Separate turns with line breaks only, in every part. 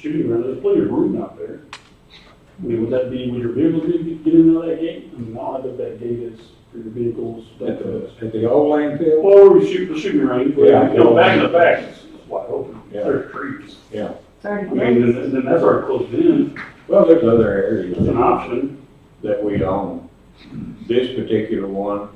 shooting range, there's plenty of room out there. I mean, would that be, would your vehicle be- get in and out of that gate? I mean, I don't know if that gate is for your vehicles.
At the,
Well,
at the old landfill?
where we shoot, the shooting range, but,
Yeah.
you know, back in the back, it's it's wide open,
Yeah.
there's trees. I
Thirty
mean,
minutes.
then, then that's already closed in,
Well, there's other areas
it's an option.
that we own. This particular one,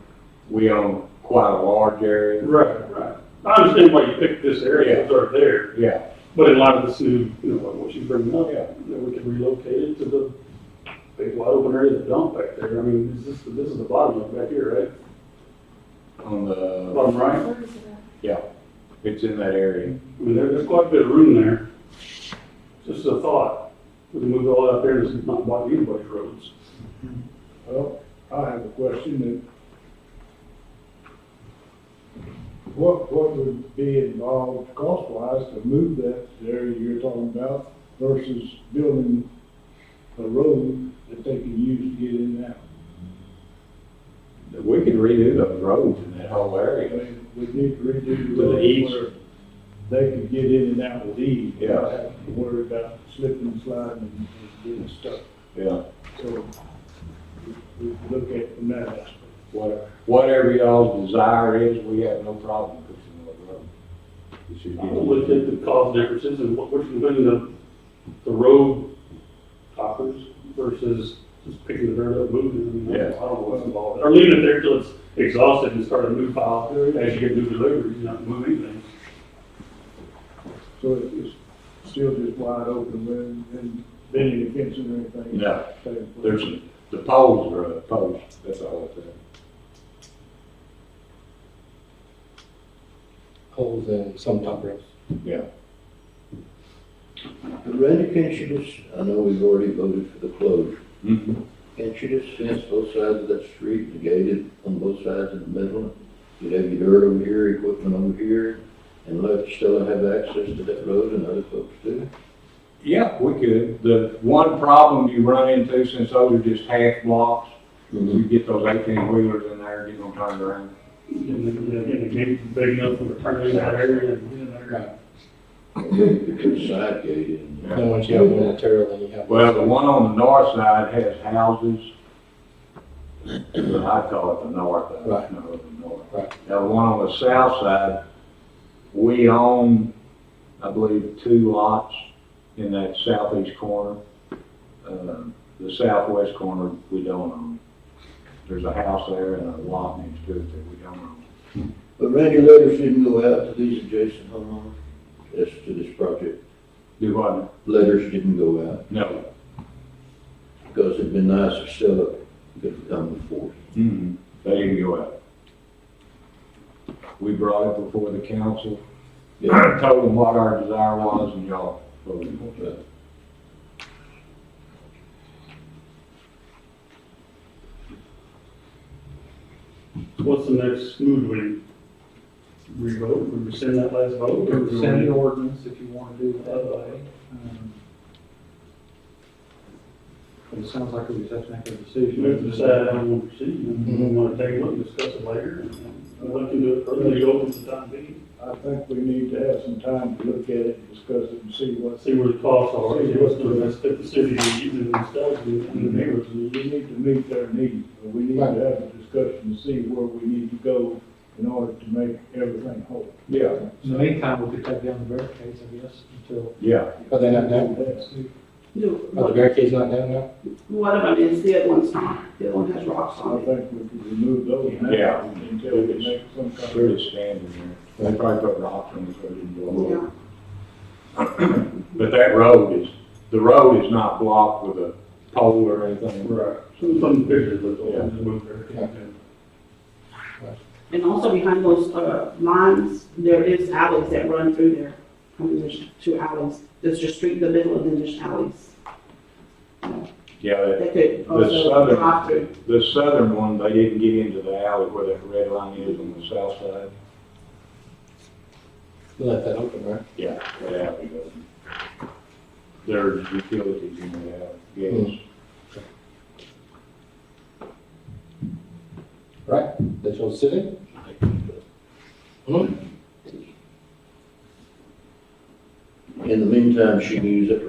we own quite a large area.
Right, right. I understand why you picked this area, it's already there.
Yeah,
But in light of this new, you know, what- what she's bringing up,
Yeah.
that we could relocate it to the big wide open area of the dump back there. I mean, this is, this is the bottom of it back here, right?
on the,
Bottom right?
yeah, it's in that area.
I mean, there, there's quite a bit of room there. Just a thought. We can move it all out there and it's not blocking anybody's roads.
Well, I have a question that. What, what would be involved cost wise to move that area you're talking about versus building a road that they can use to get in and out?
We could redo those roads in that whole
I
area.
mean, we need to redo
With
the
an ease.
road where they can get in and out with ease.
Yeah.
without having to Worry about slipping and sliding and getting stuck.
Yeah,
So we, we look at it from that aspect.
what- whatever y'all's desire is, we have no problem fixing those roads. It should
I
get-
looked at the cost differences and what, what's between the, the road toppers versus just picking the dirt up, moving it. I mean, I don't- I don't know what's involved. Or leaving it there till it's exhausted and start a new pile as you get new deliveries, you not move anything.
So it- it's still just wide open, when, and bending the fence or anything?
No, there's, the poles are up, poles, that's all it's at.
poles and some top roofs.
Yeah.
Randy, can't you just, I know we've already voted for the closure,
Hmm?
can't you just fence both sides of that street, and gate it on both sides in the middle? You'd have your dirt over here, equipment over here, and let Stella have access to that road and other folks do.
Yeah, we could. The one problem you run into since those are just half blocks, you get those eighteen wheelers in there, get them turned around.
And the, and the gate big enough for turning that area and getting there.
You could put a side gate in.
Yeah.
Then once you have one material, then you have.
Well, the one on the north side has houses. But I call it the north, I don't
Right.
know the north.
Right.
Now, the one on the south side, we own, I believe, two lots in that southeast corner. Um, The southwest corner, we don't own. There's a house there and a lot next to it that we don't own.
But Randy letters didn't go out to these adjacent homeowners, as to this project,
Do what?
letters didn't go out,
No.
because it'd been nice if Stella could have come before.
Mm-hmm. They didn't go out. We brought it before the council.
Yeah.
told them what our desire was and y'all voted.
Yeah.
What's the next move we revote, we rescind that last vote? or do we-
Send the ordinance if you want to do it that way. Um, But it sounds like we just have to make a
We have to
decision.
decide how we want to proceed, and we want to take a look, discuss it later, and and we can do it further, leave it open for the time being.
I think we need to have some time to look at it, and discuss it, and see what's,
See where the costs are, see what's the best fit the city is using and stuff, and and the neighbors.
we need to meet their needs, but we need to have a discussion to see where we need to go in order to make everything whole.
Yeah.
In the meantime, we could take down the barricades, I guess, until.
Yeah,
Are they not down?
Do-
Are the barricades not down now?
One of them is, the other one's not, the other one has rocks
I
on it.
think we could remove those now.
Yeah.
Until we make some kind of.
pretty standard there. They probably put rocks in it, so it didn't blow
Yeah.
up. But that road is, the road is not blocked with a pole or anything.
Right. Some, some pictures look old,
Yeah.
and move there.
And also behind those, uh, lines, there is alleys that run through there. I mean, there's two alleys, there's your street in the middle, and then there's alleys.
Yeah, that-
They could
the
also drive
southern,
through.
the southern one, they didn't get into the alley where that red line is on the south side.
You left that open, right?
Yeah. That alley doesn't. There's utilities in that alley, yes.
Right? That's your city?
In the meantime, she can use it for